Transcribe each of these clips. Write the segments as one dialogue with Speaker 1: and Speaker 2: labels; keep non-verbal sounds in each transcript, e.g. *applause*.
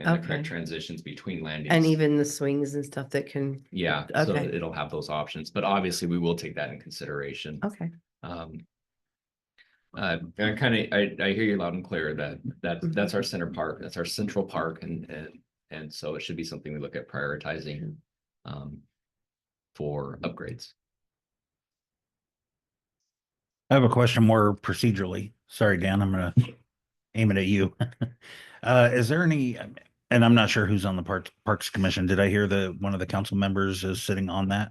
Speaker 1: and the correct
Speaker 2: Okay.
Speaker 1: transitions between land
Speaker 2: And
Speaker 1: use.
Speaker 2: even the swings and stuff that can,
Speaker 1: Yeah, so
Speaker 2: okay.
Speaker 1: it'll have those options, but obviously we will take that in consideration.
Speaker 2: okay,
Speaker 1: Um. Uh, and kind of, I, I hear you loud and clear that, that,
Speaker 2: Mm-hmm.
Speaker 1: that's our center park, that's our central park and, and, and so it should be something we look at prioritizing. Um. For upgrades.
Speaker 3: I have a question more procedurally. Sorry, Dan, I'm gonna aim it at you. *laughs* Uh, is there any, and I'm not sure who's on the Parks, Parks Commission. Did I hear that one of the council members is sitting on that?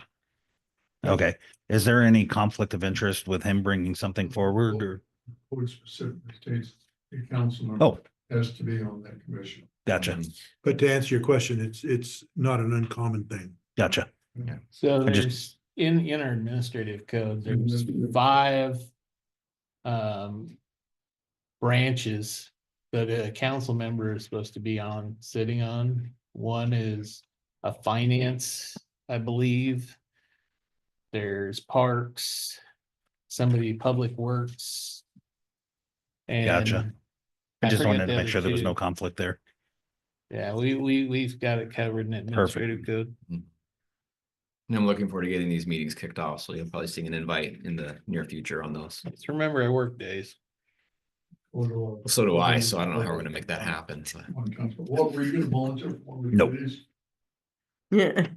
Speaker 3: Okay, is there any conflict of interest with him bringing something forward or?
Speaker 4: Code specifically states a council member
Speaker 3: Oh,
Speaker 4: has to be on that commission.
Speaker 1: Um,
Speaker 3: gotcha,
Speaker 5: But to answer your question, it's, it's not an uncommon thing.
Speaker 3: gotcha.
Speaker 6: So
Speaker 3: I just-
Speaker 6: there's, in, in our administrative code, there's
Speaker 4: Administrative.
Speaker 6: five um, branches that a council member is supposed to be on, sitting on. One is a finance, I believe. There's parks, somebody public works.
Speaker 3: Gotcha.
Speaker 6: and
Speaker 3: I just
Speaker 6: forget
Speaker 3: wanted to
Speaker 6: the
Speaker 3: make
Speaker 6: other
Speaker 3: sure there was
Speaker 6: two.
Speaker 3: no conflict there.
Speaker 6: Yeah, we, we, we've got it covered in administrative code.
Speaker 1: And I'm looking forward to getting these meetings kicked off, so you'll probably see an invite in the near future on those.
Speaker 6: Just remember our work days.
Speaker 1: So do
Speaker 2: Mm-hmm.
Speaker 1: I, so I don't know how we're gonna make that happen, so.
Speaker 4: On uh, council, what were you gonna volunteer for? Were you
Speaker 3: Nope.
Speaker 4: these?
Speaker 2: yeah.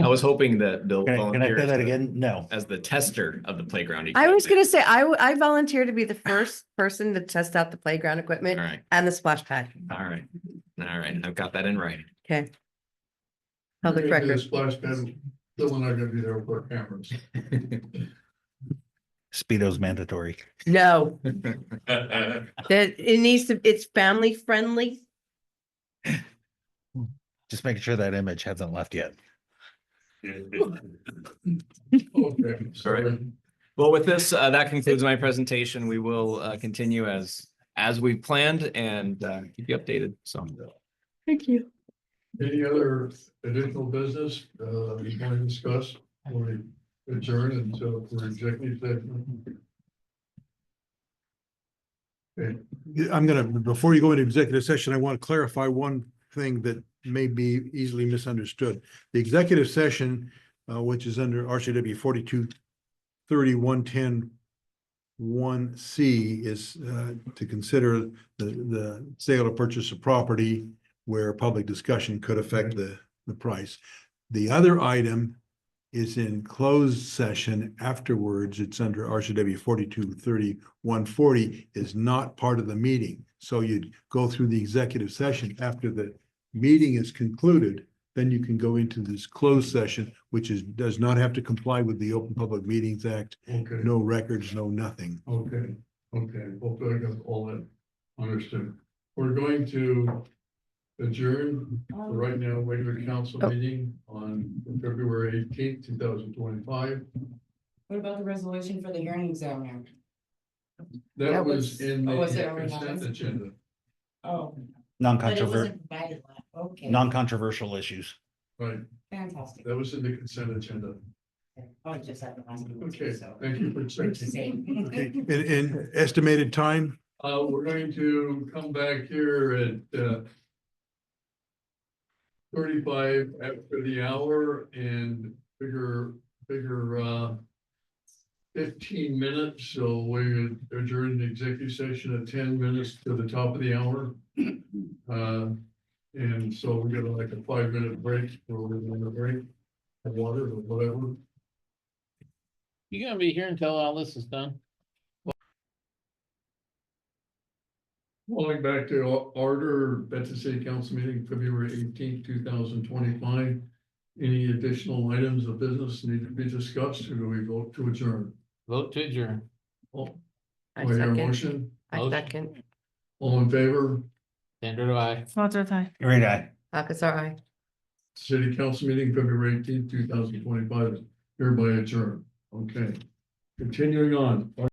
Speaker 1: I was hoping that they'll.
Speaker 3: Can I, can I
Speaker 1: volunteer
Speaker 3: say
Speaker 1: as
Speaker 3: that
Speaker 1: the-
Speaker 3: again? No.
Speaker 1: As the tester of the playground.
Speaker 2: I was
Speaker 1: equipment.
Speaker 2: gonna say, I, w- I volunteer to be the first person to test out the playground equipment
Speaker 1: All right,
Speaker 2: and the splash pad.
Speaker 1: all right, all right, I've got that in writing. *laughs*
Speaker 2: Okay. Public
Speaker 4: You're gonna do the
Speaker 2: record.
Speaker 4: Splash pad, Bill and I are gonna be there with our cameras.
Speaker 3: Speedo's mandatory.
Speaker 2: No, that, it needs to, it's family friendly.
Speaker 3: Just making sure that image hasn't left yet.
Speaker 4: Okay, sorry.
Speaker 1: Well, with this, uh, that concludes my presentation. We will, uh, continue as, as we planned and, uh, keep you updated, so.
Speaker 2: Thank you.
Speaker 4: Any other additional business, uh, you want to discuss, or adjourn until for executive session? Okay,
Speaker 5: I'm gonna, before you go into executive session, I want to clarify one thing that may be easily misunderstood. The executive session, uh, which is under RCW forty-two thirty-one ten one C is, uh, to consider the, the sale or purchase of property where public discussion could affect the, the price. The other item is in closed session afterwards. It's under RCW forty-two thirty one forty is not part of the meeting. So you'd go through the executive session after the meeting is concluded, then you can go into this closed session, which is, does not have to comply with the Open Public Meetings Act.
Speaker 4: okay.
Speaker 5: No records, no nothing.
Speaker 4: Okay, okay, hopefully I got all that understood. We're going to adjourn
Speaker 7: Um,
Speaker 4: for right now, regular council
Speaker 2: Oh.
Speaker 4: meeting on February eighteenth, two thousand twenty-five.
Speaker 7: What about the resolution for the hearing examiner?
Speaker 4: That
Speaker 7: That
Speaker 4: was
Speaker 7: was-
Speaker 4: in the
Speaker 7: oh, was it already on
Speaker 4: consent
Speaker 7: this?
Speaker 4: agenda.
Speaker 7: Oh. but it
Speaker 3: Non-controversial,
Speaker 7: wasn't provided last- Okay,
Speaker 3: non-controversial issues.
Speaker 4: Right,
Speaker 7: fantastic.
Speaker 4: that was in the consent agenda.
Speaker 7: Oh, it just happened last week,
Speaker 4: Okay,
Speaker 7: too, so.
Speaker 4: thank you for checking.
Speaker 5: Okay,
Speaker 7: Same.
Speaker 5: and, and estimated time?
Speaker 4: Uh, we're going to come back here at, uh, thirty-five after the hour and figure, figure, uh, fifteen minutes, so we adjourn the executive session at ten minutes to the top of the hour. Uh, and so we're gonna like a five-minute break, or we're gonna break, have water or whatever.
Speaker 6: You gonna be here until all this is done?
Speaker 4: Calling back to order, Benton City Council meeting, February eighteenth, two thousand twenty-five. Any additional items of business need to be discussed, or do we vote to adjourn?
Speaker 6: Vote to adjourn.
Speaker 4: All,
Speaker 2: I
Speaker 4: do I hear a
Speaker 2: second,
Speaker 4: motion,
Speaker 2: I second.
Speaker 4: all in favor,
Speaker 6: Sandra, do I?
Speaker 3: Great eye.
Speaker 2: Akasar, aye.
Speaker 4: City Council meeting, February eighteenth, two thousand twenty-five, hereby adjourned, okay. Continuing on,